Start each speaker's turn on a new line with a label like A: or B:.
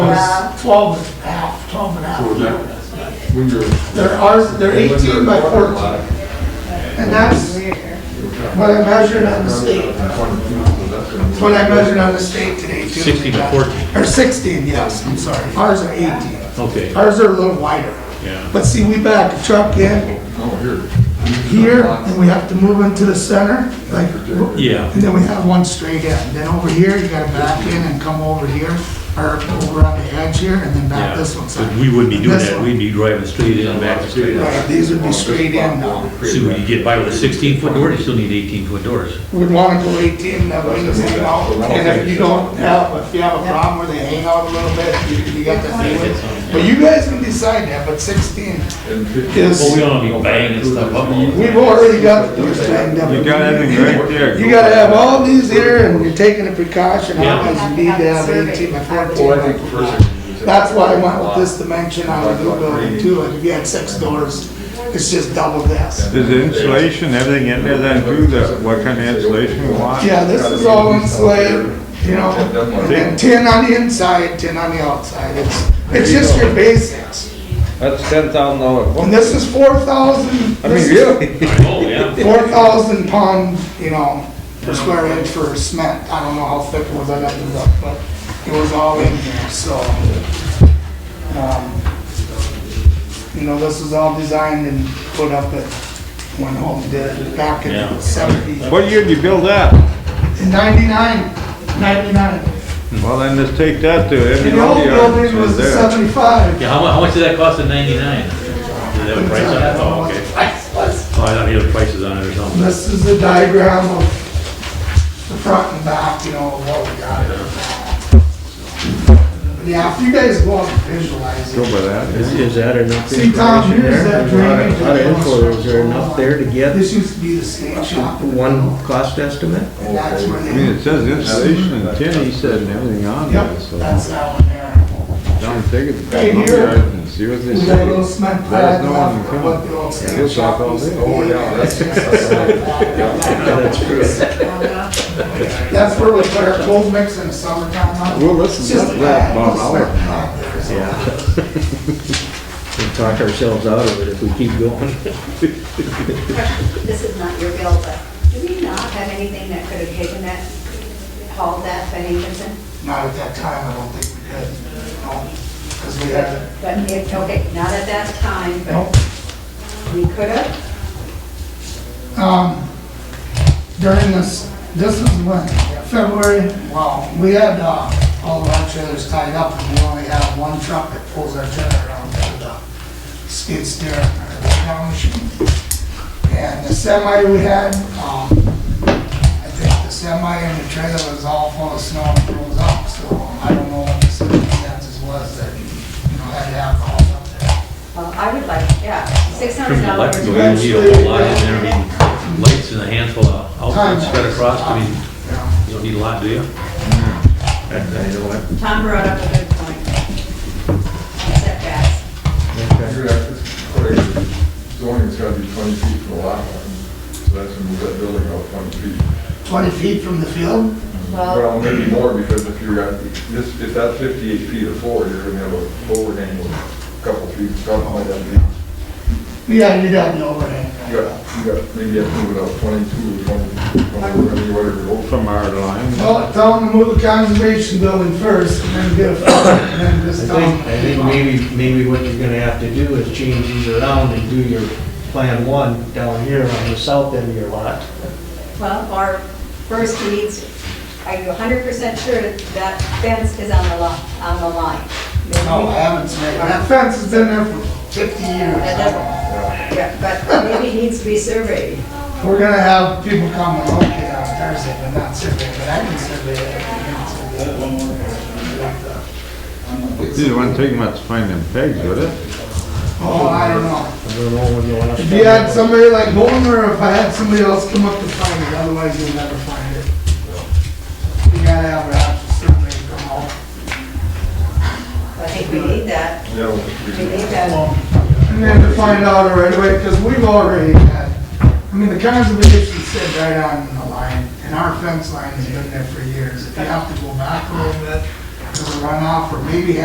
A: Yeah.
B: was 12 and a half, 12 and a
C: So
B: half.
C: that- When you're.
B: They're ours, they're
C: when
B: 18 by
C: they're
B: 14,
C: waterlogged,
B: and that's what I measured on the state.
C: that's one of the things that's gonna-
B: That's what I measured on the state today too.
D: 16 to 14.
B: Or 16, yes, I'm sorry. Ours are 18.
D: Okay,
B: Ours are a little wider.
D: Yeah.
B: But see, we back the truck in
C: Oh, here.
B: here, and we have to move into the center, like,
D: yeah,
B: and then we have one straight in. Then over here, you gotta back in and come over here, or over on the edge here, and then back
D: yeah.
B: this one
D: But
B: side.
D: we wouldn't be doing
B: This
D: that,
B: one.
D: we'd be driving straight in and back straight out.
B: Right, these would be straight in now.
D: See, when you get by with a sixteen foot door, you still need eighteen foot doors.
B: We'd wanna go eighteen, that way you hang out, and if you don't have, if you have a problem where they hang out a little bit, you, you got that freeway. But you guys can decide that, but sixteen,
C: And fifty-
B: Yes.
D: Well, we don't be banging stuff up.
B: we've already got the doors banged up.
E: You got everything right there.
B: You gotta have all these here, and you're taking a precaution,
D: Yeah.
B: otherwise you need to have eighteen by
C: Well, I think the
B: fourteen.
C: first thing you said-
B: That's why I went with this dimension on the new building too, like if you had six doors, it's just double this.
E: Is the insulation, everything in there then too, the, what kind of insulation we want?
B: Yeah, this is all insulated, you know, and then ten on the inside, ten on the outside, it's, it's just your basics.
F: That's ten thousand dollar
B: And this is four thousand,
F: I mean, really?
D: Oh, yeah.
B: four thousand pound, you know, per square inch for cement, I don't know how thick it was, I'd have to look, but it was all in here, so. um, You know, this was all designed and put up at, when home did it back
D: Yeah.
B: in seventy,
E: What year did you build that?
B: ninety-nine, ninety-nine.
E: Well, then let's take that to every
B: The
E: one
B: old
E: of the
B: building was
E: options
B: the
E: there.
B: seventy-five.
D: Yeah, how mu, how much did that cost in ninety-nine? Did they have a price on it? Oh, okay. Oh, I thought he had prices on it or something.
B: This is the diagram of the front and back, you know, of what we got. But Yeah, if you guys go out and visualize
E: Go
B: it.
E: by that.
G: Is, is that enough
B: See, Tom,
G: information
B: here's
G: there?
B: that
G: There's a lot of-
B: drainage
G: lot of
B: and
G: info. Is there enough there to get
B: This used to be the skate shop.
G: one cost estimate?
B: And that's where
E: I mean,
B: they,
E: it says insulation and tin, he said, and everything on
B: yep,
E: there, so.
B: that's that one there.
E: Don't take it.
B: Right here.
E: And See what they
B: We got a little
E: say.
B: cement
E: There's
B: pad
E: no
B: left
E: one
B: for what the old skate
E: It's like
B: shop
E: all
B: used to
E: this.
B: be.
E: Oh,
C: yeah,
B: It's just a cement pad.
G: That's true.
B: That's where we put our cold mix in the summertime. huh?
E: We'll
B: It's
E: listen
B: just
E: to
B: a pad,
E: that about
B: it's like a
E: hour.
B: pad there, so.
G: We talk ourselves out of it if we keep going.
A: This is not your bill, but do we not have anything that could have taken that, hauled that by Hankinson?
B: Not at that time, I don't think we did, because we had,
A: But if, okay, not at that time,
B: no.
A: but we could have,
B: Um, during this, this is when, February, well, we had, uh, all of our trailers tied up, and we only had one truck that pulls our trailer around to the skid steer or the power machine. And the semi we had, um, I think the semi and the trailer was all full of snow and froze up, so I don't know what the circumstances was that, you know, had alcohol up there.
A: uh, I would like, yeah, six hundred
D: From the
A: dollars.
D: lights, we need a whole lot in there, I mean, lights and a handful of outlets spread across, I mean, you don't need a lot, do you?
A: Tom brought up a good point. Setbacks.
C: You're gonna have to- whatever, Zoning's gotta be twenty feet from the lot line, so that's gonna move that building out twenty feet.
B: Twenty feet from the field?
A: Well,
C: Well, maybe more, because if you're at, this, if that's fifty-eight feet of floor, you're gonna have a overhang of a couple feet, something like that. You
B: Yeah, you got the overhang.
C: got, you got, maybe you have to move it out twenty-two, twenty, twenty, whatever. it is.
E: From our line.
B: Well, tell them to move the conservation building first, and then get a, and then
G: I
B: just tell them.
G: think, I think maybe, maybe what you're gonna have to do is change these around and do your plan one down here on the south end of your lot.
A: well, or first he needs, are you hundred percent sure that that fence is on the lot, on the line?
B: No, I haven't seen it. That fence has been there for fifty
A: That
B: years.
A: doesn't- Yeah, but maybe it needs to be surveyed.
B: We're gonna have people come and look at it on Thursday, but not survey, but I can survey it. I can survey it.
E: It wouldn't take much to find them pegs, would it?
B: Oh, I don't know.
G: I don't know when you wanna
B: If
G: start.
B: you had somebody like Bolton, or if I had somebody else come up to find it, otherwise you'll never find it. You gotta have an actual survey come out.
A: I think we need that.
C: You know,
A: We
C: you-
A: need that.
B: And then to find out right away, because we've already had, I mean, the conservation said right on the line, and our fence line has been there for years. If you have to go back a little bit, to the runoff, or maybe